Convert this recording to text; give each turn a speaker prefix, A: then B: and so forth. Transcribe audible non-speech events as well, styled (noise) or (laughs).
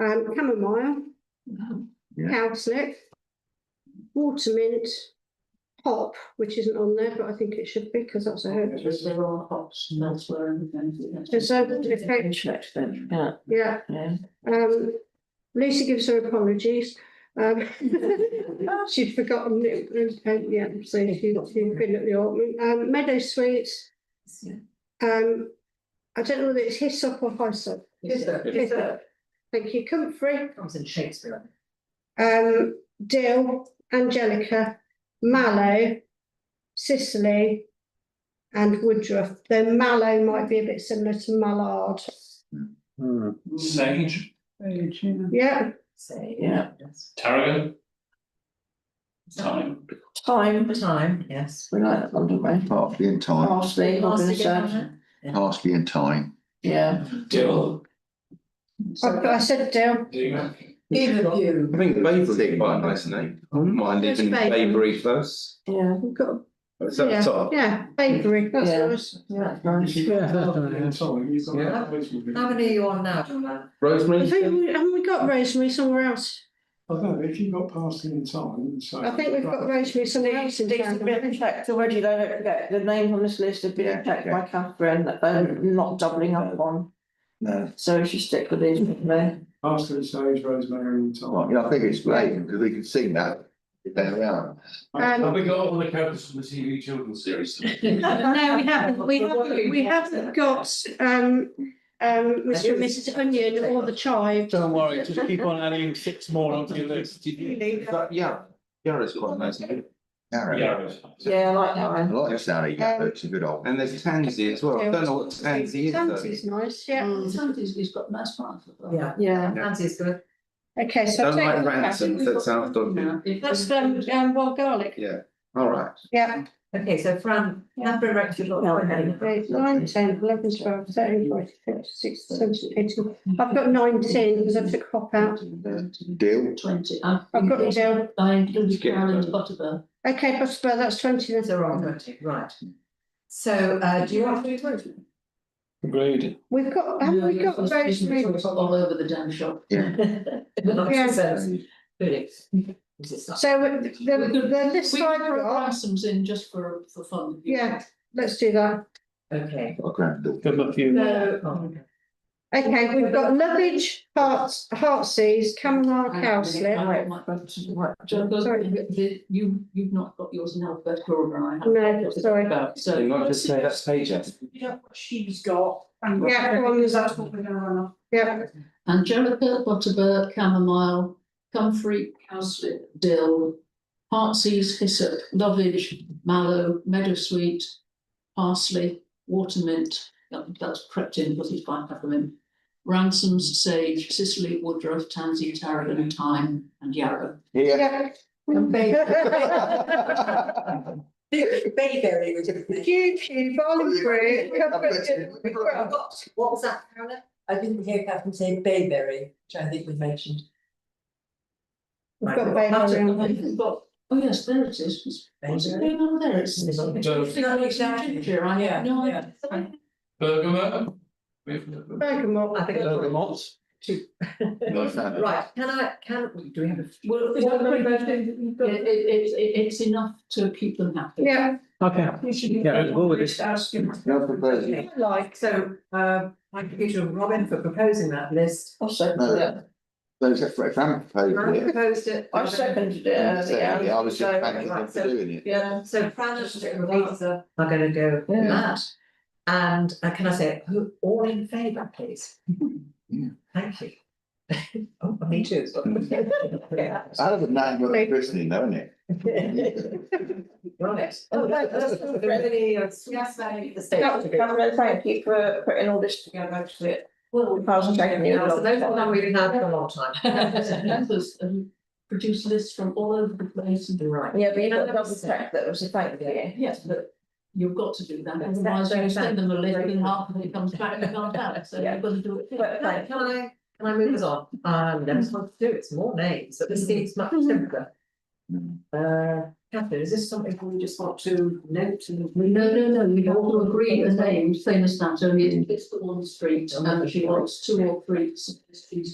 A: um, chamomile,
B: Yeah.
A: cowslip, watermint, hop, which isn't on there, but I think it should be because that's a herb.
C: Because there are hops and elsewhere and things.
A: There's a- there's a-
C: Interest then, yeah,
A: Yeah,
C: yeah.
A: um, Lucy gives her apologies. Um, (laughs) she'd forgotten it, was- uh, yeah, so she- she'd been at the autumn. Um, meadow sweets, um, I don't know whether it's hyssop or hyssop.
C: Hyssop.
A: Hyssop. Thank you, comfrey.
C: Comes in Shakespeare.
A: um, dill, angelica, mallow, Sicily, and woodruff. Though mallow might be a bit similar to mallard.
B: Hmm.
D: Sage,
A: Yeah,
C: Say, yeah.
D: tarragon, thyme.
C: Time. Time, yes. We like that one, don't we?
B: Parsley and thyme,
C: Parsley, I'm gonna say.
B: parsley and thyme.
C: Yeah.
D: dill.
A: I, I said dill.
D: Dill.
C: Either of you.
E: I think Bavery's quite a nice name. I wouldn't mind
A: Yes,
E: living in
A: Bavery.
E: Bavery first.
C: Yeah,
A: We've got,
E: Is that the
A: yeah,
E: top?
A: Oh. yeah, bakery, that's
C: Yeah.
A: nice.
C: yeah, nice.
E: Yeah.
C: How many are you on (laughs) now?
A: I
E: Rosemary?
A: think we- Haven't we got rosemary somewhere else?
F: I don't know, if you got past in time, so.
A: I think we've got rosemary somewhere else in
C: These have been
A: town.
C: checked already, though, don't forget, the names on this list have
B: Yeah,
C: been checked by Catherine that they're not doubling up on,
B: No,
C: so if you stick with these, with me.
F: Past in sage, rosemary and
B: Right,
F: thyme.
B: yeah, I think it's Raven because we can sing that. uh, Down around.
D: Have
A: Um,
D: we got all the characters from the TV children's series?
A: No, we haven't, we haven't, we haven't got, um, um, Mr and Mrs Onion or the chive.
D: Don't worry, just keep on adding six more onto your list.
B: Is that yeah, Yarrow's quite a nice name. Yarrow.
D: Yeah.
C: Yeah, I like that
B: I
C: one.
B: like Sally Yarrow, it's a good old.
E: And there's Tansy as well. I don't know what Tansy is though.
A: Tansy's nice, yeah.
C: Sometimes he's got nice parts. Yeah. Yeah. Nancy's good.
A: Okay, so.
E: Don't
A: take
E: like
A: that back.
E: ransoms, that sounds dodgy.
A: That's um, um, wild garlic.
E: Yeah, all right.
A: Yeah,
C: Okay, so Fran, number of actual.
A: eight, nine, ten, eleven, twelve, thirteen, fourteen, fifteen, sixteen, seventeen, eighteen. I've got nineteen because I took hop out.
B: Deal.
G: Twenty, I've.
A: I've got it down.
G: I included
E: Skip
G: Carol and
E: that.
G: Butterbur.
A: Okay, but that's twenty then.
C: They're all twenty, right. So, uh, do you want to do twenty?
D: Agreed.
A: We've got, have
G: No,
A: we
G: you're
A: got
G: supposed to be
A: rosemary?
G: sort of All over the damn shop.
B: Yeah.
A: Yeah.
C: So,
A: So uh, the, the list
G: We
A: I've
G: can throw
A: got,
G: ransoms in just for, for fun.
A: yeah, let's do that.
C: okay. Oh.
B: Got a granddaughter.
D: Give them a few.
C: So,
A: Okay, we've got lovage, hearts, heartsease, chamomile,
G: I- I-
A: cowslip.
C: Right, my brother's right,
G: John, those-
A: Sorry.
G: the- you, you've not got yours in alphabetical order, I have.
A: No, sorry.
G: About, so.
E: So you might just say that's page F.
A: Yeah, everyone is that's what we're gonna run off. Yeah,
G: Angelica, Butterbur, Chamomile, Comfrey, Cowslip, Dill, Heartsease, Hyssop, Lovage, Mallow, Meadowsweet, Parsley, Watermint, that- that's crept in because it's by peppermint, Ransoms, Sage, Sicily, Woodruff, Tansy, Tarragon, Thyme and Yarrow.
B: Yeah.
A: yeah.
C: (laughs) Bayberry was a.
A: Due to barley brew, covered
C: What was that, Caroline? I didn't hear Catherine say bayberry, which I think we mentioned.
A: We've got bayberry on there.
G: But- Oh, yes, there it is. What's it going on there? It's. it's-
D: Don't-
G: No, it's ginger, I have no idea.
D: Bergamot.
A: bergamot.
C: I think.
D: Bergamot.
C: Right, can I, can, do we have a?
G: Well, it's, it, it, it's- it- it's enough to keep them happy.
A: Yeah,
D: Okay. Yeah, we'll go with this.
B: No proposal.
C: Like, so, um, I could give you a Robin for proposing that list. I
G: (laughs)
B: No, that- Those are for family proposal.
C: proposed it. I seconded it
B: Secondly, I was just thanking them for doing it.
C: Yeah, so Fran and Lisa are gonna go with that. And uh, can I say, who, all in favour, please?
B: Yeah.
C: Thank you. (laughs) Oh, me too.
B: I love the name of the christening, though, isn't it?
C: Right. Oh, no, that's not really, uh, yes, I- the state.
H: That was- that was- Thank you for putting all this together, actually.
C: Well,
H: Thousand taken you.
C: So those are the we've had for a long (laughs) time.
G: Members um, produce lists from all over the place and.
C: Right.
H: Yeah, but you know, double check that it was a thank you.
G: Yes, but you've got to do that,
H: That's-
G: otherwise you
H: that's-
G: send them a list and half of it comes back and can't help, so
H: Yeah.
G: you've got to do it.
H: But
C: Right,
H: thank
C: Can I, can I move us on? Um, that's what to do, it's more names, but this seems much simpler. Uh, Catherine, is this something we just want to note and?
G: No, no, no, we have all agreed the names, same as that, only it's the one street, and she wants two or three suggestions